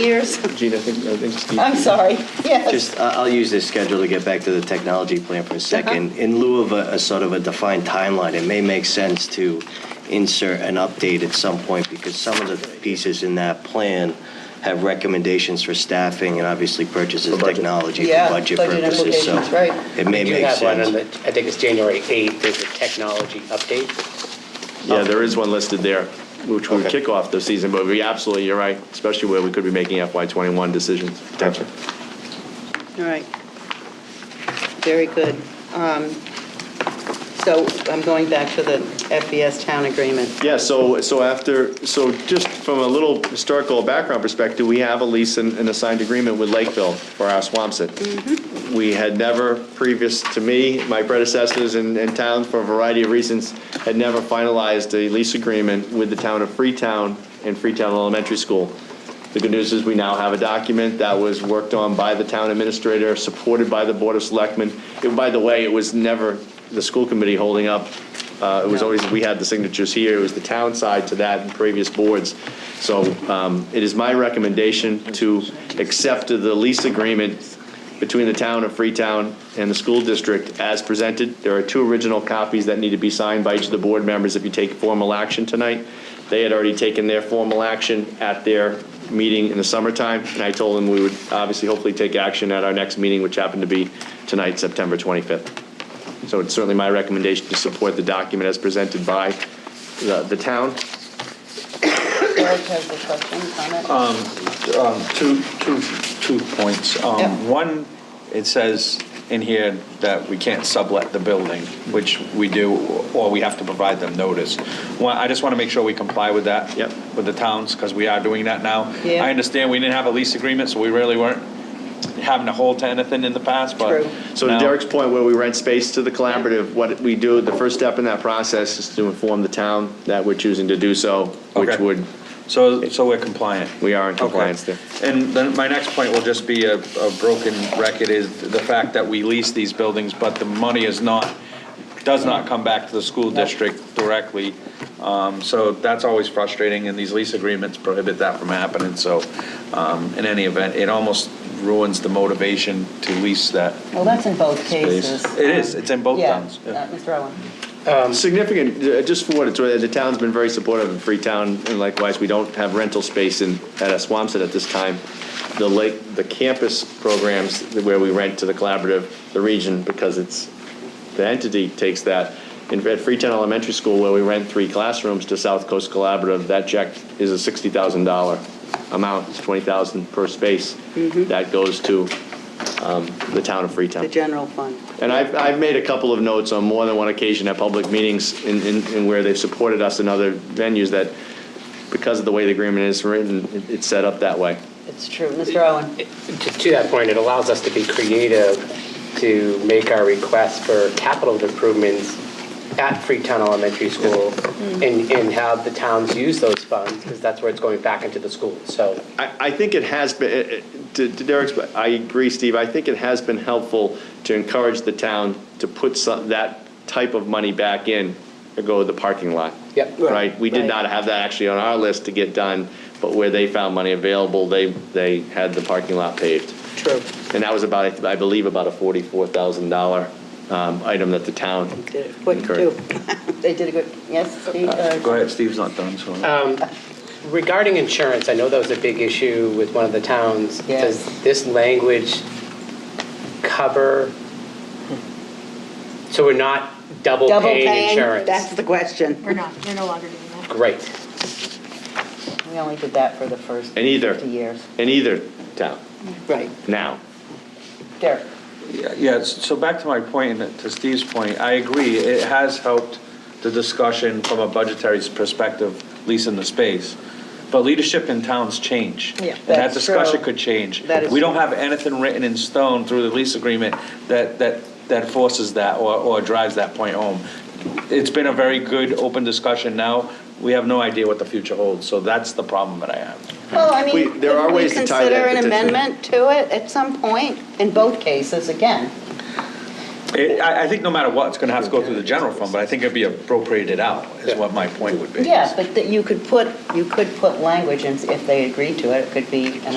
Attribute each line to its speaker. Speaker 1: years.
Speaker 2: Gene, I think, I think Steve.
Speaker 1: I'm sorry, yes.
Speaker 3: Just, I- I'll use this schedule to get back to the technology plan
Speaker 1: Uh-huh.
Speaker 3: for a second. In lieu of a, a sort of a defined timeline, it may make sense to insert an update at some point because some of the pieces in that plan have recommendations for staffing and obviously purchases of
Speaker 4: budget.
Speaker 3: technology
Speaker 1: Yeah,
Speaker 3: for budget
Speaker 1: budget
Speaker 3: purposes. So
Speaker 1: implications, right.
Speaker 3: It may
Speaker 4: We do
Speaker 3: make
Speaker 4: have one on
Speaker 3: sense.
Speaker 4: the- I think it's January 8th, there's a technology update.
Speaker 2: Yeah, there is one listed there, which would
Speaker 4: Okay.
Speaker 2: kick off the season, but we absolutely, you're right, especially where we could be making FY21 decisions. potentially.
Speaker 1: All right. Very good. Um, So I'm going back to the FBS town agreement.
Speaker 2: Yeah, so, so after, so just from a little historical background perspective, we have a lease and, and a signed agreement with Lakeville for our Swampset. We had never, previous to me, my predecessors in, in town, for a variety of reasons, had never finalized a lease agreement with the town of Freetown and Freetown Elementary School. The good news is we now have a document that was worked on by the town administrator, supported by the Board of Selectmen. It- By the way, it was never the school committee holding up. Uh, It was
Speaker 1: No.
Speaker 2: always, we had the signatures here, it was the town side to that and previous boards. So um, it is my recommendation to accept the lease agreement between the town of Freetown and the school district as presented. There are two original copies that need to be signed by each of the board members if you take formal action tonight. They had already taken their formal action at their meeting in the summertime, and I told them we would obviously hopefully take action at our next meeting, which happened to be tonight, September 25th. So it's certainly my recommendation to support the document as presented by the the town.
Speaker 1: Eric has a question,
Speaker 5: Um,
Speaker 1: comment?
Speaker 5: Two, two, two points. Um,
Speaker 1: Yep.
Speaker 5: One, it says in here that we can't sublet the building, which we do, or we have to provide them notice. One, I just want to make sure we comply with that.
Speaker 2: Yep.
Speaker 5: With the towns, because we are doing that now.
Speaker 1: Yeah.
Speaker 5: I understand we didn't have a lease agreement, so we really weren't having to hold to anything in the past, but.
Speaker 1: True.
Speaker 2: So to
Speaker 5: now-
Speaker 2: Derek's point, where we rent space to the collaborative, what we do, the first step in that process is to inform the town that we're choosing to do so, which
Speaker 5: Okay.
Speaker 2: would,
Speaker 5: So, so we're compliant.
Speaker 2: we are in compliance
Speaker 5: Okay.
Speaker 2: there.
Speaker 5: And then my next point will just be a, a broken record is the fact that we lease these buildings, but the money is not, does not come back to the school district directly. Um, so that's always frustrating and these lease agreements prohibit that from happening. So, um, in any event, it almost ruins the motivation to lease that
Speaker 1: Well, that's in both cases.
Speaker 5: space. It is, it's in both
Speaker 1: Yeah,
Speaker 5: towns.
Speaker 1: uh, Mr. Owen.
Speaker 2: Significant, uh, just for what it's worth, the town's been very supportive of Freetown, and likewise, we don't have rental space in, at Aswamsted at this time. The lake, the campus programs where we rent to the collaborative, the region, because it's, the entity takes that. In, at Freetown Elementary School, where we rent three classrooms to South Coast Collaborative, that check is a sixty thousand dollar amount, it's twenty thousand per space. That goes to, um, the town of Freetown.
Speaker 1: The general fund.
Speaker 2: And I've, I've made a couple of notes on more than one occasion at public meetings in, in, in where they've supported us in other venues that because of the way the agreement is written, it- it's set up that way.
Speaker 1: It's true, Mr. Owen.
Speaker 4: To to that point, it allows us to be creative to make our requests for capital improvements at Freetown Elementary School
Speaker 1: Mm-hmm.
Speaker 4: and, and have the towns use those funds, because that's where it's going back into the school, so.
Speaker 2: I, I think it has been, it- it- to to Derek's, I agree, Steve, I think it has been helpful to encourage the town to put some, that type of money back in to go to the parking lot.
Speaker 4: Yep.
Speaker 2: Right? We did
Speaker 1: Right.
Speaker 2: not have that actually on our list to get done, but where they found money available, they, they had the parking lot paved.
Speaker 1: True.
Speaker 2: And that was about, I believe, about a forty-four thousand dollar um, item that the town
Speaker 1: Did it quick,
Speaker 2: incurred.
Speaker 1: too. They did a good, yes, Steve? uh,
Speaker 5: Go ahead, Steve's not done, so.
Speaker 4: Regarding insurance, I know that was a big issue with one of the towns.
Speaker 1: Yes.
Speaker 4: Does this language cover, so we're not double
Speaker 1: Hmm. Double
Speaker 4: paying
Speaker 1: paying,
Speaker 4: insurance?
Speaker 1: that's the question.
Speaker 6: We're not, we're no longer doing that.
Speaker 4: Great.
Speaker 1: We only did that for the first
Speaker 2: And either.
Speaker 1: 50 years.
Speaker 2: In either town,
Speaker 1: Right,
Speaker 2: now.
Speaker 1: Derek.
Speaker 5: Yeah, Yeah, s- so back to my point, and to Steve's point, I agree, it has helped the discussion from a budgetary perspective, leasing the space. But leadership in towns change.
Speaker 1: Yeah,
Speaker 5: And that
Speaker 1: that's
Speaker 5: discussion
Speaker 1: true.
Speaker 5: could change.
Speaker 1: That is
Speaker 5: We don't
Speaker 1: true.
Speaker 5: have anything written in stone through the lease agreement that, that, that forces that or, or drives that point home. It's been a very good, open discussion now. We have no idea what the future holds, so that's the problem that I have.
Speaker 1: Well, I
Speaker 2: We-
Speaker 1: mean,
Speaker 2: there are
Speaker 1: could we
Speaker 2: ways to tie
Speaker 1: consider
Speaker 2: that
Speaker 1: an
Speaker 2: petition.
Speaker 1: amendment to it at some point, in both cases, again?
Speaker 5: It- I, I think no matter what, it's gonna have to go through the general fund, but I think it'd be appropriated out, is what my point would be.
Speaker 1: Yeah, but that you could put, you could put language, and if they agreed to it, it could be an